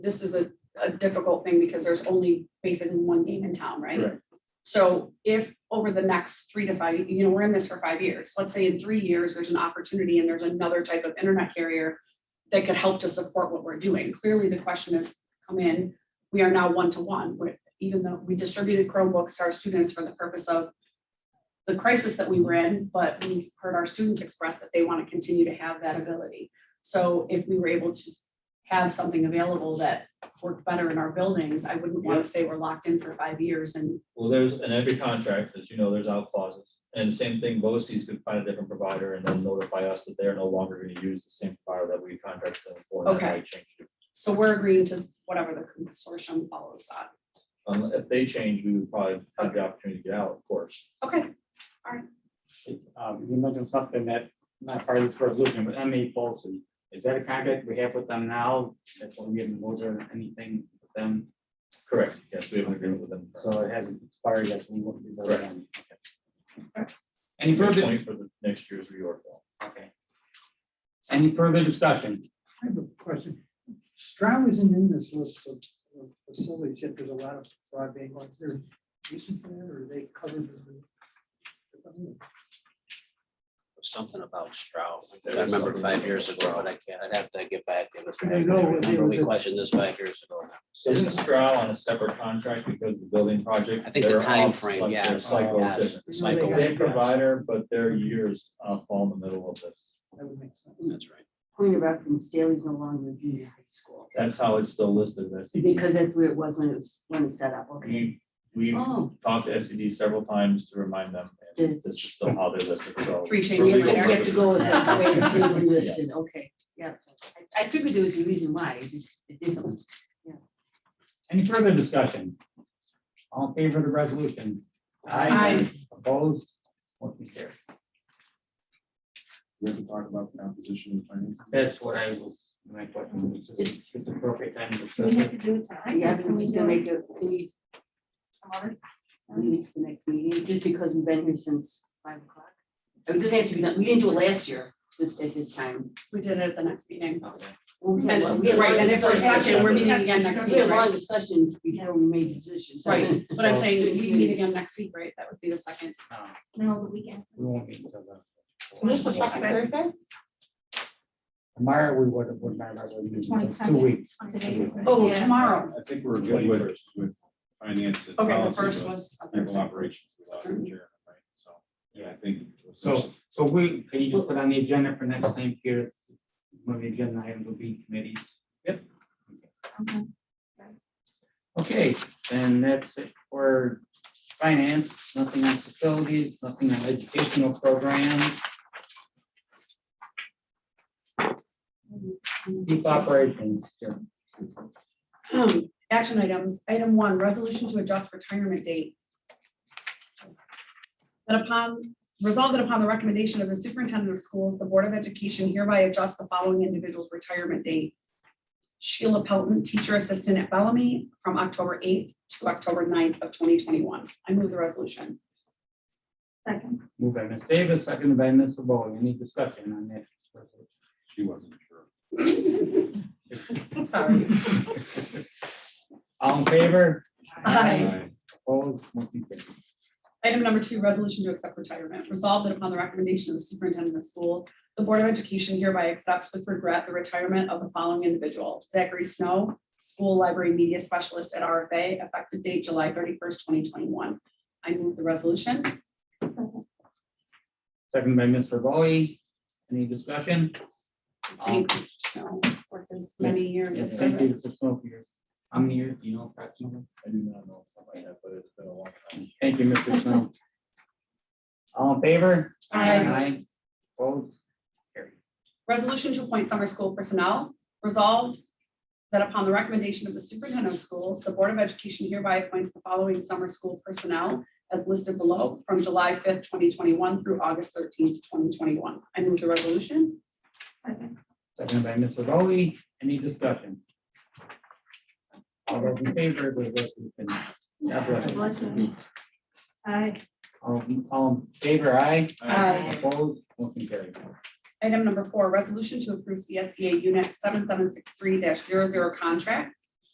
this is a, a difficult thing because there's only basically one game in town, right? Right. So if over the next three to five, you know, we're in this for five years, let's say in three years, there's an opportunity and there's another type of internet carrier that could help to support what we're doing. Clearly, the question is, come in, we are now one-to-one, We're- even though we distributed Chromebooks to our students for the purpose of the crisis that we were in, but we heard our students express that they want to continue to have that ability. So if we were able to have something available that worked better in our buildings, I wouldn't want to say we're locked in for five years and Well, there's, in every contract, as you know, there's out clauses, and same thing, BOCES could find a different provider and then notify us that they're no longer gonna use the same provider that we contracted them for. and that Okay. might change it. so we're agreeing to whatever the consortium follows on. Um, if they change, we would probably have the opportunity to get out, of course. Okay, Um, you mentioned something that, not part of this resolution, but MA Folsom, is that a contract we have with them now? That's why we haven't voted on anything with them, Correct, yes, we have an agreement with them. so it hasn't expired yet, so we won't be voting on. it. Any They're further, going For the next year's reorg. okay. Any further discussion? I have a question. Stroud isn't in this list of of facilities yet. There's a lot of broadband ones. There, isn't there, or are they covered? in the- something about Stroud. There I was remember something five about years ago, Stroud. but I can't, I'd have to get back. It was- I know, it Remember, was we a- questioned this five years ago. Isn't Stroud on a separate contract because of the building project? I think the They're all timeframe, like, yeah, Their cycle is yes. different. They Cycle. got- Same provider, but their years uh, fall in the middle of this. That would make sense. That's right. Point of reference, Daley's no longer in junior high school, That's how it's still listed, E that's. because that's where it was when it was, when it was set up, okay. We, we've Oh, talked to SED several times to remind them, and Yes. this is still how they're listed, so. Three for changes legal we later. have to go with that, the way it's purposes- been listed, Yes. okay, yeah. I- I figured there was a reason why, it just, it didn't. Any further discussion? All in favor of the resolution? Aye. Opposed? Motion carries. We have to talk about the opposition and finance. That's what I was, my question was, is this the appropriate time to discuss We have it? to do it tonight. Yeah, Can we're we just do gonna it make it, can we, tomorrow? we need to the next meeting, just because we've been here since five o'clock. I mean, it doesn't have to be, done- we didn't do it last year, this, at this time. we did it at the next meeting. Okay. We had a long- And, we had a right, long and if we're discussion. session, we're meeting again next We week, had a long right? discussion, we had only made decisions. Right, but I'm saying, we meet again next week, right? That would be the second. No, No, the weekend. Uh, We won't meet until the. This is second Thursday? Tomorrow, we would, would not have a meeting, it's two 22nd. weeks. Today is- Oh, Yeah. tomorrow. I think we're good with, with finance. and Okay, the policy, first but was. a People Thursday. operations, we lost in Jared, right, so, yeah, I think. So, so we, can you just put on the agenda for next time here, one of the agenda items will be committees? Yep. Okay. Okay, then that's it for finance, nothing on facilities, nothing on educational programs, deep operations. Sure. Action items, item one, resolution to adjust retirement date. That upon, resolve that upon the recommendation of the superintendent of schools, the Board of Education hereby adjusts the following individual's retirement date. Sheila Pelton, teacher assistant at Bellamy, from October eighth to October 9th of twenty twenty-one. I move the resolution. Second. Moved by Ms. Davis, seconded by Ms. Bowe. Any discussion on that? resolution? She wasn't sure. Sorry. All in favor? Aye. Aye. Opposed? Motion carries. Item number two, resolution to accept retirement. Resolved that upon the recommendation of the superintendent of schools, the Board of Education hereby accepts with regret the retirement of the following individual. Zachary Snow, School Library Media Specialist at RFA, effective date July thirty-first, twenty twenty-one. I move the resolution. Second. Seconded by Ms. Bowe. Any discussion? Um, Thank you, Snow, for his many years of yes, Thank you service. for twelve years. How many years, do you know, approximately? I do not know, if I might have, but it's been a long time. Thank you, Mr. Snow. All in favor? Aye. Opposed? Carried. Resolution to appoint summer school personnel. Resolved that upon the recommendation of the superintendent of schools, the Board of Education hereby appoints the following summer school personnel as listed below from July fifth, twenty twenty-one through August thirteenth, twenty twenty-one. I move the resolution. Second. Seconded by Ms. Bowe. Any discussion? All those in favor of the resolution? God bless you. Resolution. Aye. All all in favor, aye? Aye. Opposed? Motion carried. E Item number four, resolution to approve CSEA Unit seven seven six three 0 contract